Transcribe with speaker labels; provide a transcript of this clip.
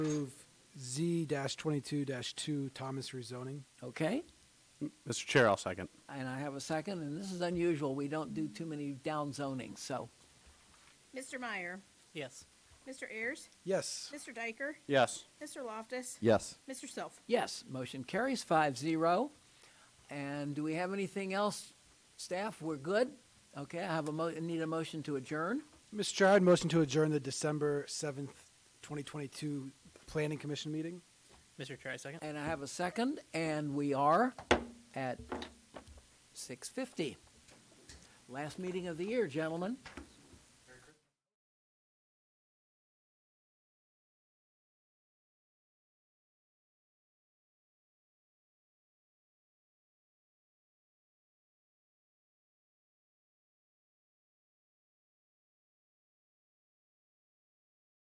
Speaker 1: approve Z twenty-two two Thomas rezoning.
Speaker 2: Okay,
Speaker 3: Mr. Chair, I'll second.
Speaker 2: and I have a second, and this is unusual. We don't do too many down zonings, so.
Speaker 4: Mr. Meyer.
Speaker 2: Yes.
Speaker 4: Mr. Ayers.
Speaker 1: Yes,
Speaker 4: Mr. Diker.
Speaker 3: Yes.
Speaker 4: Mr. Loftus.
Speaker 5: Yes.
Speaker 4: Mr. Self.
Speaker 2: Yes, motion carries five zero. And do we have anything else, staff? We're good? Okay, I have a mo, need a motion to adjourn.
Speaker 1: Mr. Chair, I'd motion to adjourn the December seventh, twenty twenty-two Planning Commission meeting.
Speaker 6: Mr. Chair, I second.
Speaker 2: And I have a second, and we are at six fifty. Last meeting of the year, gentlemen.